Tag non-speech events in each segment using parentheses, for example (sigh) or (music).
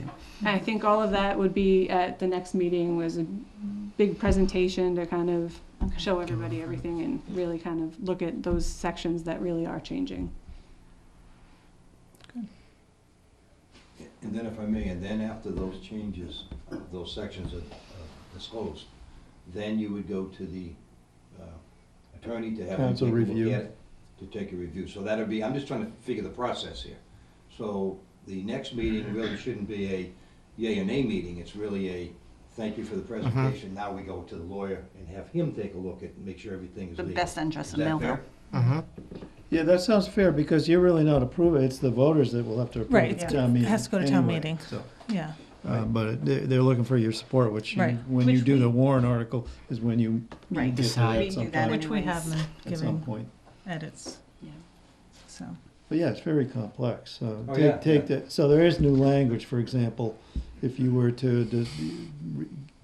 And I think all of that would be at the next meeting was a big presentation to kind of Okay. show everybody everything and really kind of look at those sections that really are changing. And then if I may, and then after those changes, uh, those sections are uh, disclosed, then you would go to the uh, attorney to have. him Counsel take a look review. at it, To take a review. So that'd be, I'm just trying to figure the process here. So the next meeting really shouldn't be a yay or nay meeting. It's really a, thank you for Uh-huh. the presentation. Now we go to the lawyer and have him take a look at, make sure everything is The legal. best interest Is of that Millville. fair? Yeah, that sounds fair, because you're really not approving, it's the voters that will have to Right, approve the it's- town meeting. has to go to town anyway, meeting. so, Yeah, uh, But they're, they're looking for your support, which you, Right. when you Which do we- the Warren article, is when you Right. you decide at We some do that point, in- which we have been at some giving point. edits, Yeah. so. But yeah, it's very complex, so Oh, yeah, take, take yeah. that, so there is new language, for example, if you were to de-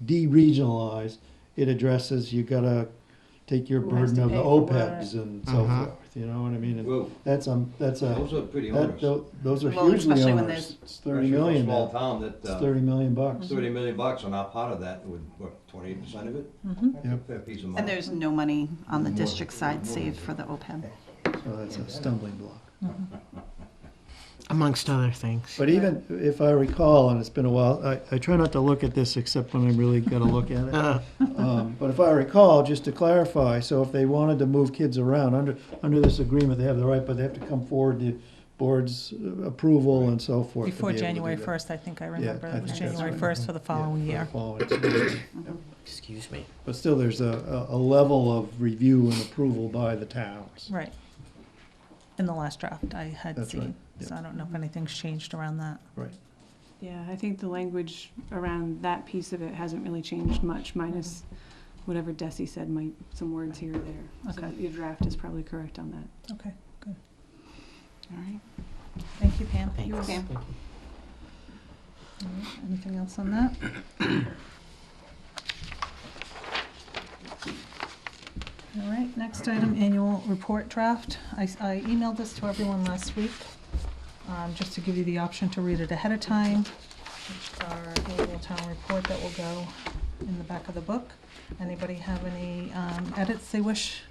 de-regionalize, it addresses, you gotta take your Who has burden to of the pay for OPEBs and so Mhm. forth, you know what I mean? And Uh-huh. Well, That's, um, that's a. those are pretty That, onerous. tho- those are Well, hugely especially when owners. It's Especially thirty for a million Small now. town that. It's uh, thirty million bucks. Thirty million bucks on our part of that would, what, twenty-eight percent of it? Mhm. That's a Yep. fair piece of money. And there's no money on the More. district side More. saved for the E OPEB. So that's a stumbling block. amongst other things. But even if I recall, and it's been a while, I, I try not to look at this except when I really gotta look at (laughs) it. Uh, Um, but if I recall, just to clarify, so if they wanted to move kids around, under, under this agreement, they have the right, but they have to come forward to board's approval and so forth. to Before be able to do January that. 1st, I think I Yeah, remember, I it was think that's January right. 1st for the Yeah, following for the year. following- excuse me. But still, there's a, a, a level of review and approval by the towns. Right. In the last draft I had That's right, seen, so yeah. I don't know if anything's changed around that. Right. Yeah, I think the language around that piece of it hasn't really changed much, minus whatever Desi said, might, some words here or there. So Okay. your draft is probably correct on that. Okay, All right. thank you Pam. Thanks. You're welcome. Thank you. All right, Anything else on that? All right, next item, annual report draft. I s- I emailed this to everyone last week, um, just to give you the option to read it ahead of time. It's our annual town report that will go in the back of the book. Anybody have any um, edits they wish?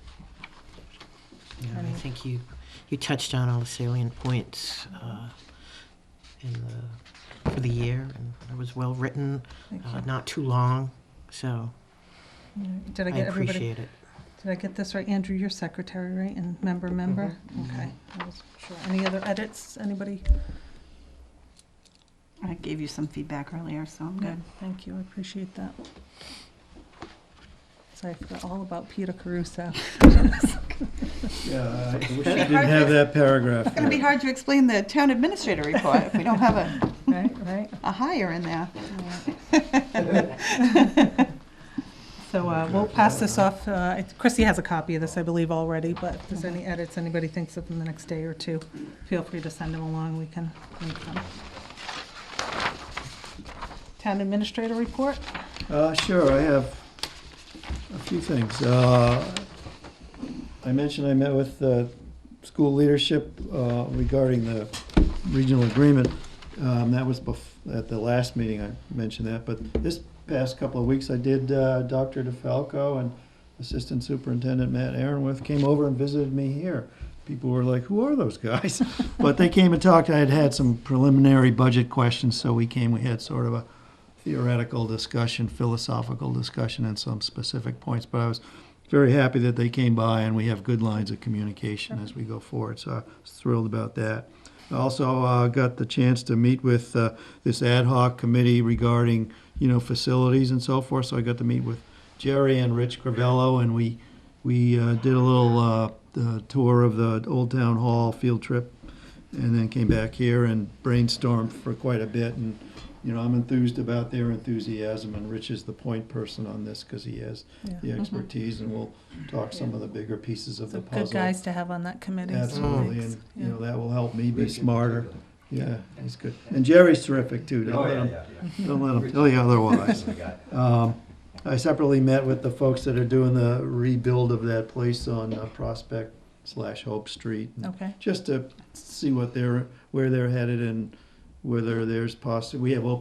Yeah, I think you you touched on all the salient points uh, in the for the year, and it was well written, Thank uh, you. not too long. So All right, Did I, I get everybody? appreciate it. Did I get this right? Andrew, you're secretary, right? And member, Mm-hmm. member? Okay. I wasn't sure. Any other edits, anybody? I gave you some feedback earlier, so I'm Good, good. thank you, I appreciate that. So I forgot all about Peter Caruso. Yeah, I wish you Be didn't hard have to- that paragraph. It's going to be there. hard to explain the town administrator report if we don't have a, (laughs) Right, right. a hire in there. So uh, we'll pass this off, uh, I- Chrissy has a copy of this, I believe, already, but if there's any edits anybody thinks of in the next day or two, feel free to send them along, we can make them. Town administrator report? Uh, sure, I have a few things. Uh, I mentioned I met with uh school leadership uh, regarding the regional agreement. Um, that was bef- at the last meeting, I mentioned that, but this past couple of weeks, I did, uh, Dr. DeFalco and Assistant Superintendent Matt Aaronworth came over and visited me here. People were like, who are those guys? (laughs) But they came and talked, I had had some preliminary budget questions, so we came, we had sort of a theoretical discussion, philosophical discussion, and some specific points. But I was very happy that they came by, and we have good lines of communication as we go forward. So I was thrilled about that. I also uh, got the chance to meet with uh, this ad hoc committee regarding, you know, facilities and so forth. So I got to meet with Jerry and Rich Crivello, and we we uh, did a little uh, uh, tour of the Old Town Hall field trip and then came back here and brainstormed for quite a bit. And you know, I'm enthused about their enthusiasm, and Rich is the point person on this because he has the expertise, and we'll talk some of the bigger pieces of So the puzzle. Mm-hmm. Good guys to have on that committee. so Absolutely, thanks. and you Yeah. know that will help me be Rich in smarter. particular. Yeah, he's good, and Jerry's terrific too. Don't Oh, let yeah, him, yeah, don't let him tell you otherwise. (laughs) yeah. I got it. Um, I separately met with the folks that are doing the rebuild of that place on uh, Prospect slash Hope Street. and Okay. Just to see what they're, where they're headed and whether there's possi, we have open